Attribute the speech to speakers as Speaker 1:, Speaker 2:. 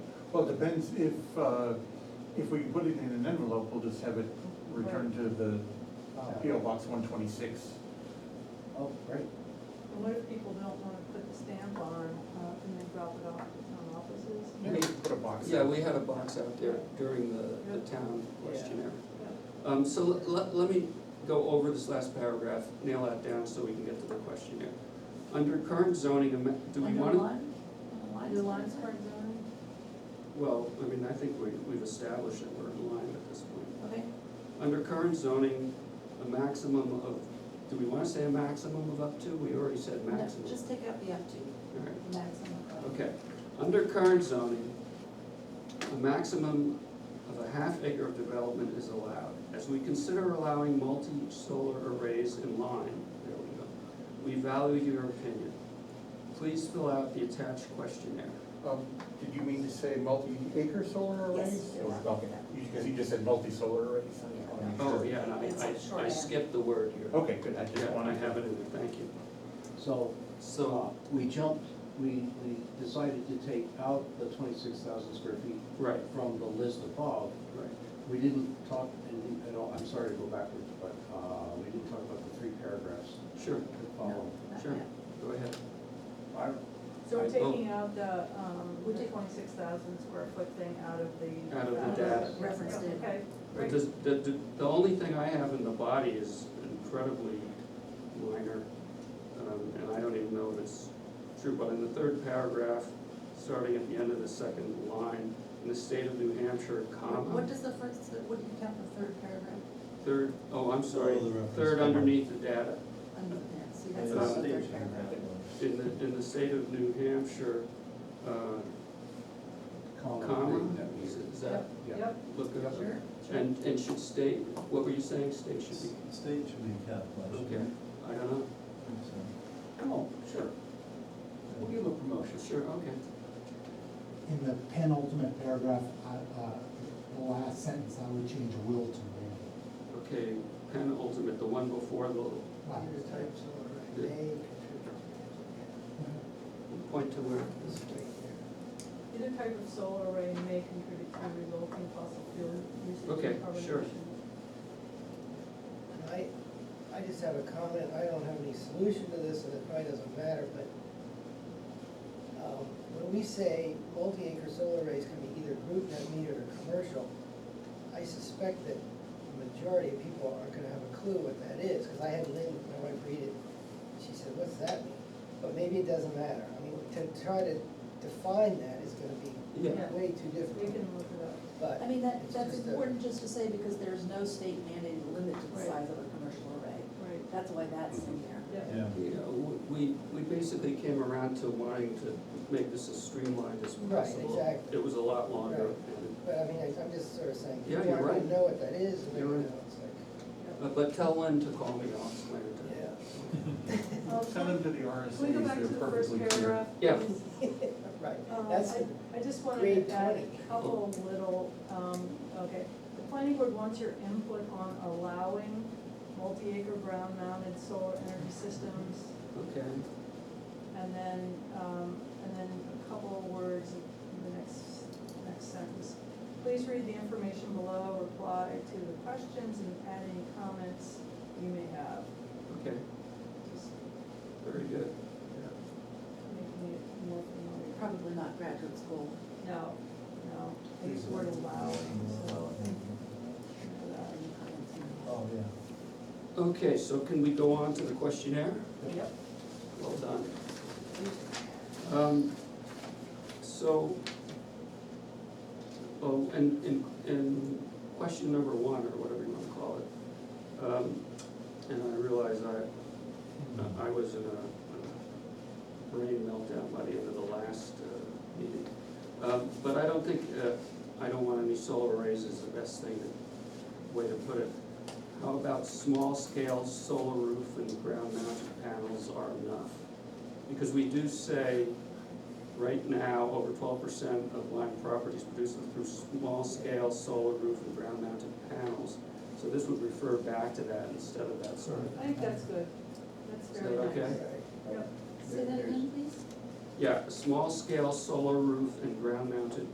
Speaker 1: Well, it depends if, uh, if we put it in an envelope, we'll just have it returned to the PO Box one twenty-six.
Speaker 2: Oh, great.
Speaker 3: What if people don't wanna put the stamp on, uh, and then drop it off to town offices?
Speaker 1: Maybe put a box.
Speaker 4: Yeah, we had a box out there during the, the town questionnaire. Um, so let, let, let me go over this last paragraph, nail that down so we can get to the questionnaire. Under current zoning, ama- do we wanna?
Speaker 3: Your lines are done,
Speaker 4: Well, I mean, I think we, we've established that we're in line at this point.
Speaker 3: okay,
Speaker 4: Under current zoning, a maximum of, do we wanna say a maximum of up to? We already said
Speaker 5: No,
Speaker 4: maximum.
Speaker 5: just take out the up to,
Speaker 4: All right.
Speaker 5: maximum. of-
Speaker 4: Okay, under current zoning, a maximum of a half acre of development is allowed. As we consider allowing multi-solar arrays in line, there we go, we value your opinion. Please fill out the attached questionnaire.
Speaker 1: Um, did you mean to say multi-acre solar
Speaker 5: Yes,
Speaker 1: arrays?
Speaker 5: it
Speaker 1: Or-
Speaker 5: was.
Speaker 1: Okay, because you just said multi-solar arrays. I just wanna make
Speaker 4: Oh,
Speaker 1: sure. Oh.
Speaker 4: yeah, and
Speaker 5: It's
Speaker 4: I,
Speaker 5: a short
Speaker 4: I, I
Speaker 5: end.
Speaker 4: skipped the word here.
Speaker 1: Okay, good, I just
Speaker 4: Yeah, I
Speaker 1: wanted to.
Speaker 4: have it in there, thank you.
Speaker 2: So, uh,
Speaker 4: So,
Speaker 2: we jumped, we, we decided to take out the twenty-six thousand square feet
Speaker 4: right,
Speaker 2: from the list above.
Speaker 4: right,
Speaker 2: We didn't talk anything at all, I'm sorry to go backwards, but, uh, we didn't talk about the three paragraphs
Speaker 4: sure,
Speaker 2: that
Speaker 5: No,
Speaker 2: follow.
Speaker 5: not
Speaker 4: sure,
Speaker 5: yet.
Speaker 4: go ahead.
Speaker 2: I,
Speaker 3: so we're
Speaker 2: I-
Speaker 3: taking out the, um,
Speaker 5: We're
Speaker 3: the
Speaker 5: taking-
Speaker 3: twenty-six thousand square foot thing out of the.
Speaker 4: Out of the
Speaker 5: data. Reference
Speaker 3: Yeah,
Speaker 5: data.
Speaker 3: Okay,
Speaker 4: But
Speaker 3: great,
Speaker 4: does, the, the, the only thing I have in the body is incredibly minor, um, and I don't even know if it's true, but in the third paragraph, starting at the end of the second line, in the state of New Hampshire,
Speaker 5: What what
Speaker 4: comma,
Speaker 5: does the first, what do you count the third paragraph
Speaker 4: third, oh, I'm sorry,
Speaker 6: Below the reference
Speaker 4: third
Speaker 6: comma.
Speaker 4: underneath the data,
Speaker 5: under that? See, that's
Speaker 6: It's
Speaker 5: not the
Speaker 4: state
Speaker 5: third paragraph.
Speaker 4: in the, in the state of New Hampshire, uh,
Speaker 2: comma,
Speaker 4: comma,
Speaker 2: thing that we-
Speaker 4: is is that,
Speaker 2: yeah.
Speaker 3: yep,
Speaker 4: look it up?
Speaker 5: Sure.
Speaker 4: And, and should state, what were you saying, state should be,
Speaker 6: State should be capitalized.
Speaker 4: okay, I don't know,
Speaker 6: So,
Speaker 2: Oh, sure. We'll give him a promotion.
Speaker 4: sure, okay.
Speaker 7: In the penultimate paragraph, I- uh, the last sentence, I would change will to may.
Speaker 4: Okay, penultimate, the one before the,
Speaker 7: Right.
Speaker 4: the point to where,
Speaker 3: either type of solar array may contribute to resulting fossil fuel usage
Speaker 4: Okay,
Speaker 3: and carbon
Speaker 4: sure.
Speaker 3: emissions.
Speaker 8: I, I just have a comment, I don't have any solution to this, and it probably doesn't matter, but, um, when we say multi-acre solar arrays can be either group net metered or commercial, I suspect that the majority of people aren't gonna have a clue what that is, because I had Lynn, my wife, read it, and she said, what's that mean? But maybe it doesn't matter, I mean, to try to define that is gonna be
Speaker 4: yeah,
Speaker 3: Yeah.
Speaker 8: way too
Speaker 3: We
Speaker 8: difficult,
Speaker 3: can look it up.
Speaker 8: but.
Speaker 5: I mean, that,
Speaker 8: it's
Speaker 5: that's
Speaker 8: just a-
Speaker 5: important just to say because there's no state mandated limit to the
Speaker 3: Right.
Speaker 5: size of a commercial array.
Speaker 3: Right,
Speaker 5: That's why that's in there.
Speaker 3: yeah,
Speaker 6: Yeah.
Speaker 4: you know, we, we basically came around to wanting to make this as streamlined as
Speaker 8: Right,
Speaker 4: possible.
Speaker 8: exactly.
Speaker 4: It was a lot longer,
Speaker 8: Right.
Speaker 4: and-
Speaker 8: But I mean, I- I'm just sort of saying,
Speaker 4: Yeah,
Speaker 8: people
Speaker 4: you're
Speaker 8: aren't
Speaker 4: right.
Speaker 8: gonna know what that is, and they're
Speaker 4: You're
Speaker 8: gonna,
Speaker 4: right.
Speaker 8: it's like,
Speaker 4: but, but tell Lynn to call me, I'll explain it to her.
Speaker 8: yeah.
Speaker 3: Oh,
Speaker 1: Send them to the RSA's,
Speaker 3: Can we go back to
Speaker 1: they're
Speaker 3: the first
Speaker 1: perfectly clear.
Speaker 3: paragraph?
Speaker 4: Yeah.
Speaker 3: please?
Speaker 8: Right,
Speaker 3: Um,
Speaker 8: that's, the-
Speaker 3: I, I just wanted
Speaker 8: grade
Speaker 3: to add a
Speaker 8: 20.
Speaker 3: couple of little, um, okay, the planning board wants your input on allowing multi-acre ground mounted solar energy systems,
Speaker 4: Okay,
Speaker 3: and then, um, and then a couple of words in the next, next sentence. Please read the information below, reply to the questions, and add any comments you may have,
Speaker 4: okay,
Speaker 3: just
Speaker 4: very good.
Speaker 3: making it more familiar.
Speaker 5: Probably not graduate school.
Speaker 3: No, no, I use the word allowing, so I think, um, for that.
Speaker 6: Oh, yeah.
Speaker 4: Okay, so can we go on to the questionnaire?
Speaker 3: Yep.
Speaker 4: Well done. Um, so, oh, and, and, and question number one, or whatever you wanna call it. Um, and I realize I, I was in a uh, brain meltdown by the end of the last, uh, meeting. Um, but I don't think, uh, I don't want any solar arrays is the best thing, to- way to put it. How about small scale solar roof and ground mounted panels are enough? Because we do say, right now, over twelve percent of Lyme properties produce them through small scale solar roof and ground mounted panels. So this would refer back to that instead of that sort of,
Speaker 3: I think that's good, that's
Speaker 4: Is
Speaker 3: very nice.
Speaker 4: that okay?
Speaker 3: Yep.
Speaker 5: Say that again, please.
Speaker 4: yeah, small scale solar roof and ground mounted